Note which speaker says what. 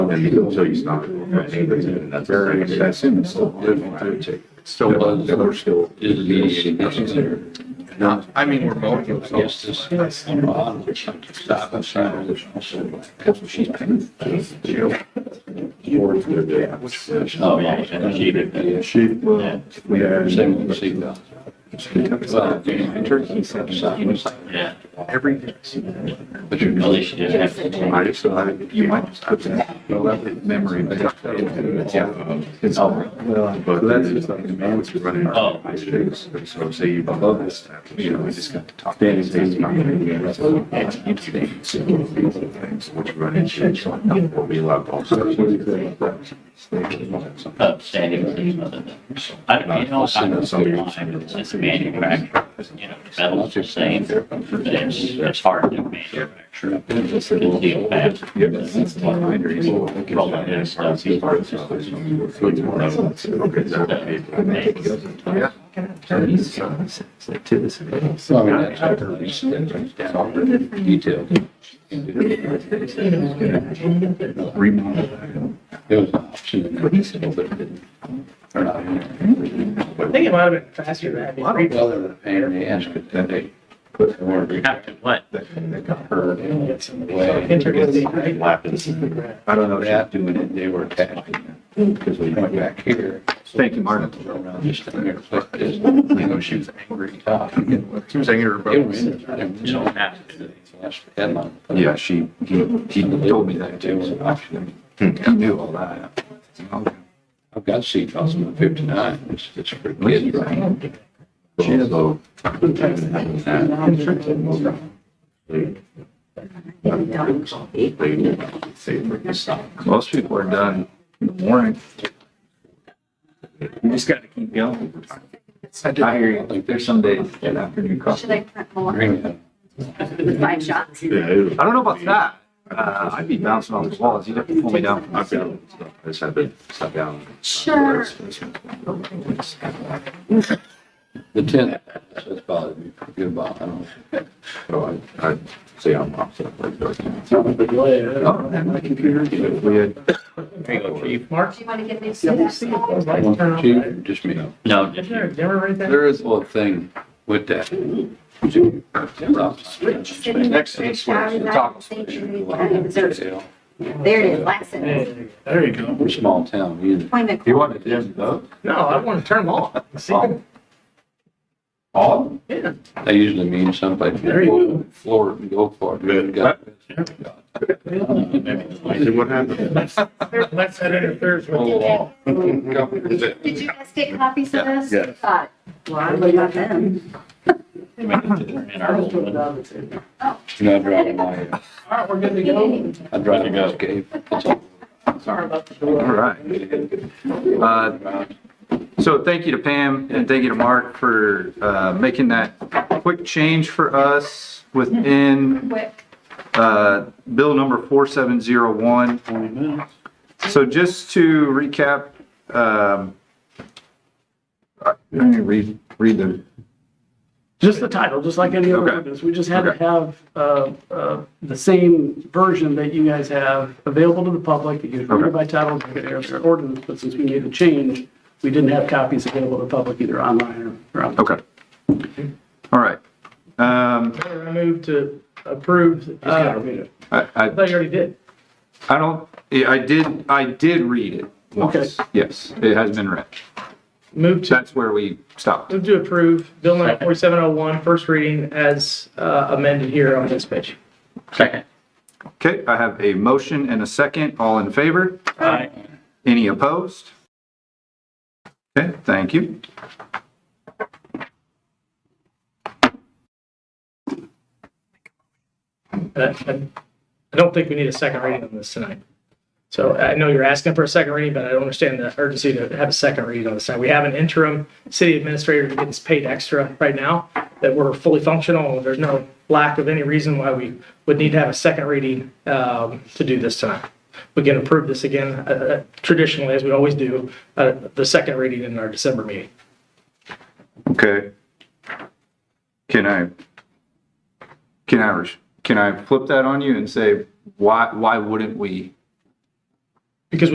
Speaker 1: and until you stop. And that's very, that's in, it's still.
Speaker 2: Still was,
Speaker 1: That we're still.
Speaker 2: is mediating necessary? Not.
Speaker 1: I mean, we're both.
Speaker 2: Yes, this. Stop and sign.
Speaker 1: She's paying.
Speaker 2: Oh, yeah, yeah, she did. that.
Speaker 1: She. Yeah.
Speaker 2: Same with the seatbelt. Well,
Speaker 1: In Turkey, he said,
Speaker 2: Yeah,
Speaker 1: every. day.
Speaker 2: but you really should just have to take.
Speaker 1: I just, I, you might just put that. Memory. Yeah. It's all. But that's just like the man was running.
Speaker 2: Oh.
Speaker 1: I should, so say you love this, you know, we just got to talk. Then it's. Things which run into. What we love also.
Speaker 3: upstanding with each other. I, you know, I don't mind, it's a manufacturer, you know, metal's the same, but it's, it's hard to manufacture. It's a deal fast. Roll it and stuff, these parts are always
Speaker 2: So I mean, that's how they're reset, that's all the detail.
Speaker 1: Remodel.
Speaker 2: It was an option. But he said, well, but it didn't. Or not.
Speaker 4: I think it might have been faster than
Speaker 2: Well, they
Speaker 4: that.
Speaker 2: were paying the ass, but then they put the word.
Speaker 3: You have to what?
Speaker 2: Her and it's in the way.
Speaker 4: Intricately, right?
Speaker 2: I don't know, that doing it, they were attached. Because we went back here.
Speaker 1: Thank you, Martin.
Speaker 2: around this thing here, like this, you know, she was angry. uh, It was.
Speaker 1: She was angry
Speaker 2: it
Speaker 1: about.
Speaker 2: was-
Speaker 3: You don't have to do it.
Speaker 2: That's the headline.
Speaker 1: Yeah, she, he, he told me that
Speaker 2: It was
Speaker 1: too.
Speaker 2: an option.
Speaker 1: He knew all that.
Speaker 2: I've got seat belts in my fifty-nine, it's, it's for kids, right?
Speaker 1: She has a. Most people are done in the morning. You just gotta keep going. I hear you, like there's some days that afternoon coffee.
Speaker 5: Should I print more
Speaker 2: Green.
Speaker 5: with five shots?
Speaker 1: I don't know about that. Uh, I'd be bouncing off the walls. You'd have to pull me down. I've been, I just have been stuck down. Oh,
Speaker 5: Sure.
Speaker 2: The tenth, that's bothered me for a good while, I don't.
Speaker 1: So I, I'd say I'm off. Oh, and my computer, you know, we had.
Speaker 3: There you go, chief.
Speaker 4: Mark,
Speaker 5: Do you want to get me
Speaker 4: yeah,
Speaker 5: to
Speaker 4: we'll
Speaker 5: that?
Speaker 4: see if those
Speaker 2: I
Speaker 4: lights
Speaker 2: want
Speaker 4: turn
Speaker 2: to
Speaker 4: on.
Speaker 2: cheat,
Speaker 4: right?
Speaker 2: or just me.
Speaker 3: No, just
Speaker 4: Isn't there a
Speaker 3: you.
Speaker 4: dimmer right there?
Speaker 2: There is a little thing with that.
Speaker 1: Next thing, swear, the tacos.
Speaker 5: There it is, last sentence.
Speaker 4: There you go.
Speaker 2: We're a small town, you
Speaker 5: Appointment.
Speaker 1: You want to dim those?
Speaker 4: No, I want to turn them off. See?
Speaker 1: Oh. All?
Speaker 4: Yeah.
Speaker 2: know, they usually mean someplace.
Speaker 4: There you go.
Speaker 2: Florida, and go for it.
Speaker 1: Good.
Speaker 2: Got-
Speaker 1: what happened?
Speaker 4: Let's head in Thursday.
Speaker 2: Oh, wow.
Speaker 5: Did you guys get copies of this?
Speaker 1: Yeah.
Speaker 5: Uh, Well, we got them.
Speaker 3: We need to turn in our old one.
Speaker 2: You know, I drive my, uh,
Speaker 4: All right, we're good to go.
Speaker 2: I drive my escape. It's all-
Speaker 4: Sorry about the
Speaker 1: All
Speaker 4: door.
Speaker 1: right. Uh, So thank you to Pam and thank you to Mark for uh, making that quick change for us within
Speaker 5: Quick.
Speaker 1: uh, bill number 4701. So just to recap, um, I- let me read, read the,
Speaker 6: Just the title, just like any other
Speaker 1: Okay.
Speaker 6: ordinance. We just had to
Speaker 1: Okay.
Speaker 6: have uh, uh, the same version that you guys have available to the public. You can read
Speaker 1: Okay.
Speaker 6: it by title, you can hear their ordinance, but since we made the change, we didn't have copies available to the public either online or on.
Speaker 1: okay. All right. Um,
Speaker 4: I move to approve. uh,
Speaker 6: I
Speaker 1: I, I
Speaker 4: I thought you already did.
Speaker 1: I don't, yeah, I did, I did read it once. Yes, it has been read.
Speaker 4: Move to,
Speaker 1: That's where we stopped.
Speaker 4: move to approve bill number 4701, first reading as uh, amended here on this page.
Speaker 3: Second.
Speaker 1: Okay, I have a motion and a second. All in favor?
Speaker 3: Aye.
Speaker 1: Any opposed? Okay, thank you.
Speaker 4: Uh, I I don't think we need a second reading on this tonight. So I know you're asking for a second reading, but I don't understand the urgency to have a second reading on this tonight. We have an interim city administrator who gets paid extra right now, that we're fully functional. There's no lack of any reason why we would need to have a second reading um, to do this tonight. We can approve this again, uh, traditionally, as we always do, uh, the second reading in our December meeting.
Speaker 1: Okay. Can I, can I, res- can I flip that on you and say, why, why wouldn't we